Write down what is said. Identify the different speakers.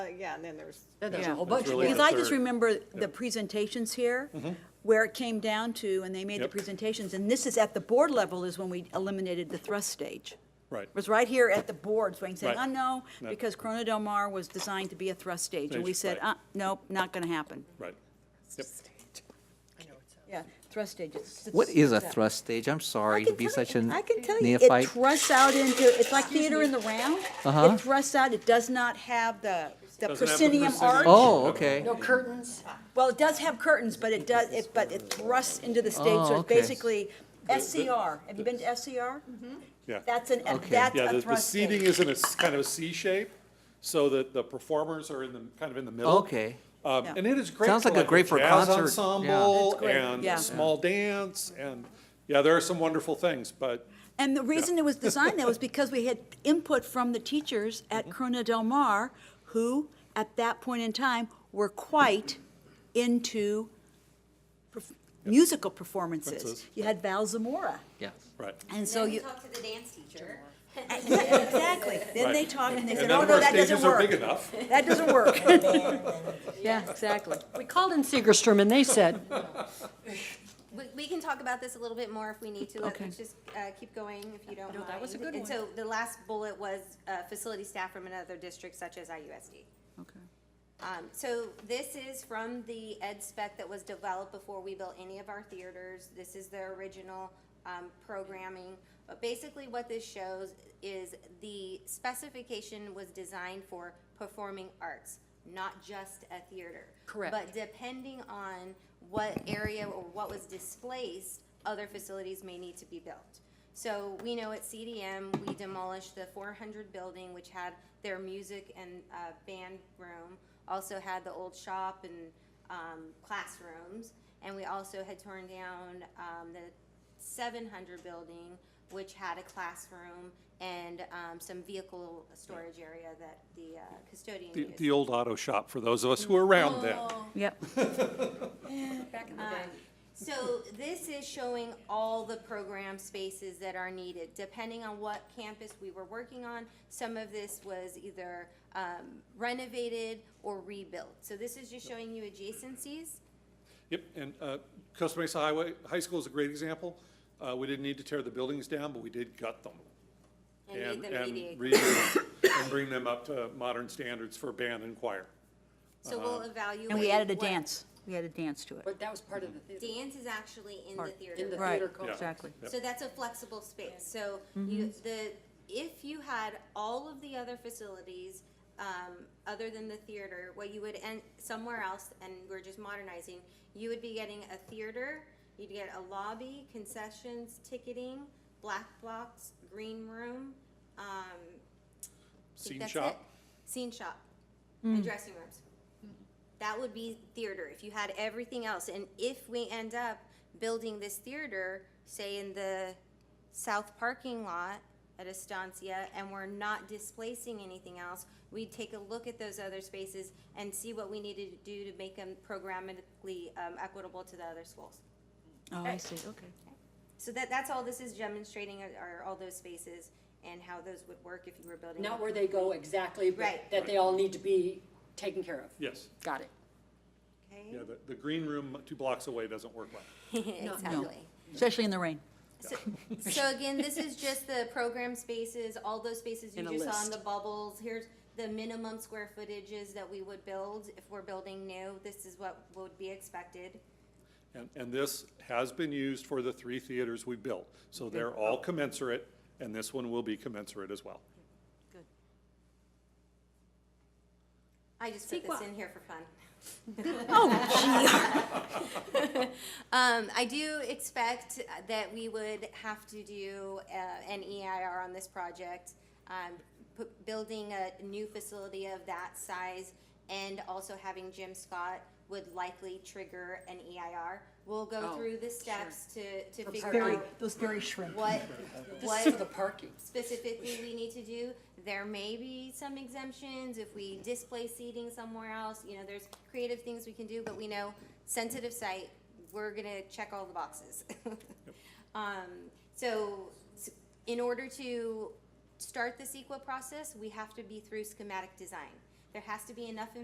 Speaker 1: Uh, yeah, and then there's,
Speaker 2: Then there's a
Speaker 3: Yeah.
Speaker 2: whole
Speaker 4: That's
Speaker 2: bunch more.
Speaker 4: really
Speaker 3: Because I just
Speaker 4: third.
Speaker 3: remember the presentations here, where it came down to, and they made the
Speaker 4: Yep.
Speaker 3: presentations, and this is at the board level is when we eliminated the thrust stage.
Speaker 4: Right.
Speaker 3: It was right here at the board, saying, saying, oh,
Speaker 4: Right.
Speaker 3: no,
Speaker 4: No.
Speaker 3: because Corona Del Mar was designed to be a thrust stage, and we said,
Speaker 4: Stage,
Speaker 3: uh,
Speaker 4: right.
Speaker 3: nope, not gonna happen.
Speaker 4: Right. Yep.
Speaker 3: Yeah, thrust stages.
Speaker 5: What is a thrust stage? I'm
Speaker 3: I
Speaker 5: sorry to
Speaker 3: can
Speaker 5: be
Speaker 3: tell
Speaker 5: such
Speaker 3: you-
Speaker 5: a
Speaker 3: I can tell you, it
Speaker 5: neophyte. Uh-huh.
Speaker 3: thrusts out into, it's like theater in the round. It thrusts out, it does not have the, the
Speaker 4: Doesn't have the
Speaker 3: proscenium
Speaker 4: proscenium.
Speaker 3: arch.
Speaker 5: Oh, okay.
Speaker 2: No curtains.
Speaker 3: Well, it does have curtains, but it does, it, but it thrusts into the stage, so
Speaker 5: Oh,
Speaker 3: it's
Speaker 5: okay.
Speaker 3: basically SCR. Have you been to SCR?
Speaker 4: Yeah.
Speaker 3: That's an,
Speaker 5: Okay.
Speaker 3: that's
Speaker 4: Yeah, the,
Speaker 3: a
Speaker 4: the
Speaker 3: thrust stage.
Speaker 4: seating is in a, s- kind of a C shape, so that the performers are in the, kind of in the middle.
Speaker 5: Okay.
Speaker 4: Um,
Speaker 3: Yeah.
Speaker 4: and it is great
Speaker 5: Sounds
Speaker 4: for
Speaker 5: like a
Speaker 4: like a
Speaker 5: great for
Speaker 4: jazz
Speaker 5: concert, yeah.
Speaker 4: ensemble
Speaker 3: It's great,
Speaker 4: and
Speaker 3: yeah.
Speaker 4: a small dance and, yeah, there are some wonderful things, but
Speaker 3: And the reason it was designed that was because we had input from the teachers at
Speaker 4: Mm-hmm.
Speaker 3: Corona Del Mar, who, at that point in time, were quite into perf- musical performances.
Speaker 4: Performances.
Speaker 3: You had Val Zamora,
Speaker 5: Yes.
Speaker 4: Right.
Speaker 3: and so you,
Speaker 6: Talk to the dance teacher.
Speaker 3: yeah, exactly. Then they
Speaker 4: Right.
Speaker 3: talked and they
Speaker 4: And
Speaker 3: said,
Speaker 4: none
Speaker 3: oh,
Speaker 4: of
Speaker 3: no,
Speaker 4: our
Speaker 3: that doesn't
Speaker 4: stages are big
Speaker 3: work.
Speaker 4: enough.
Speaker 3: That doesn't work.
Speaker 2: Yeah, exactly. We called in Segerstrom and they said,
Speaker 6: We, we can talk about this a little bit more if we need to. Let's
Speaker 2: Okay.
Speaker 6: let's just, uh, keep going if you don't
Speaker 2: No,
Speaker 6: mind.
Speaker 2: that was a good
Speaker 6: And
Speaker 2: one.
Speaker 6: so the last bullet was, uh, facility staff from another district such as IUSD. Um, so this is from the ed spec that was developed before we built any of our theaters. This is the original, um, programming. But basically what this shows is the specification was designed for performing arts, not just a theater.
Speaker 2: Correct.
Speaker 6: But depending on what area or what was displaced, other facilities may need to be built. So we know at CDM, we demolished the four hundred building, which had their music and, uh, band room, also had the old shop and, um, classrooms. And we also had torn down, um, the seven hundred building, which had a classroom and, um, some vehicle storage area that the uh, custodian
Speaker 4: The,
Speaker 6: used.
Speaker 4: the old auto shop for those of us who were around then.
Speaker 3: Oh. Yep.
Speaker 6: So this is showing all the program spaces that are needed, depending on what campus we were working on. Some of this was either um, renovated or rebuilt. So this is just showing you adjacencies.
Speaker 4: Yep, and uh, Costa Mesa Highway, High School is a great example. Uh, We didn't need to tear the buildings down, but we did gut them.
Speaker 6: And made them mediate.
Speaker 4: redo them And bring them up to modern standards for band and choir.
Speaker 6: So we'll evaluate.
Speaker 3: And we added a
Speaker 6: what-
Speaker 3: dance. We added a dance to it.
Speaker 2: but that was part of the theater.
Speaker 6: Dance is actually in the
Speaker 2: part-
Speaker 6: theater.
Speaker 2: In the
Speaker 3: Right.
Speaker 2: theater culture.
Speaker 3: Exactly.
Speaker 4: Yep.
Speaker 6: So that's a flexible space. So you, the, if you had all of the other facilities, um, other than the theater, what you would end, somewhere else, and we're just modernizing, you would be getting a theater, you'd get a lobby, concessions, ticketing, black box, green room, um. I think
Speaker 4: Scene
Speaker 6: that's
Speaker 4: shop,
Speaker 6: it. Scene shop, and dressing rooms. That would be theater if you had everything else. And if we end up building this theater, say in the south parking lot at Estancia, and we're not displacing anything else, we'd take a look at those other spaces and see what we needed to do to make them programmatically um, equitable to the other schools.
Speaker 3: Oh, I see, okay.
Speaker 6: So that, that's all this is demonstrating are- are all those spaces and how those would work if you were building.
Speaker 2: Not where they go exactly, but
Speaker 6: Right.
Speaker 2: that they all need to be taken care of.
Speaker 4: yes.
Speaker 2: Got it.
Speaker 6: Okay?
Speaker 4: Yeah, the, the green room two blocks away doesn't work well.
Speaker 6: Exactly.
Speaker 3: Especially in the rain.
Speaker 6: So- So again, this is just the program spaces, all those spaces you
Speaker 2: And a
Speaker 6: just saw in
Speaker 2: list.
Speaker 6: the bubbles. Here's the minimum square footages that we would build if we're building new. This is what would be expected.
Speaker 4: And, and this has been used for the three theaters we built. So they're all commensurate, and this one will be commensurate as well.
Speaker 6: I just put this
Speaker 2: Sequa.
Speaker 6: in here for fun. Um, I do expect that we would have to do, uh, an EIR on this project. Um, pu- building a new facility of that size and also having Jim Scott would likely trigger an EIR. We'll go
Speaker 2: Oh,
Speaker 6: through the steps to, to figure
Speaker 2: Very-
Speaker 6: out
Speaker 3: those very shrimp.
Speaker 6: what,
Speaker 2: This is for the
Speaker 6: what
Speaker 2: parking.
Speaker 6: specifically we need to do. There may be some exemptions if we displace seating somewhere else, you know, there's creative things we can do, but we know sensitive site, we're gonna check all the boxes. Um, so, s- in order to start the CEQA process, we have to be through schematic design. There has to be enough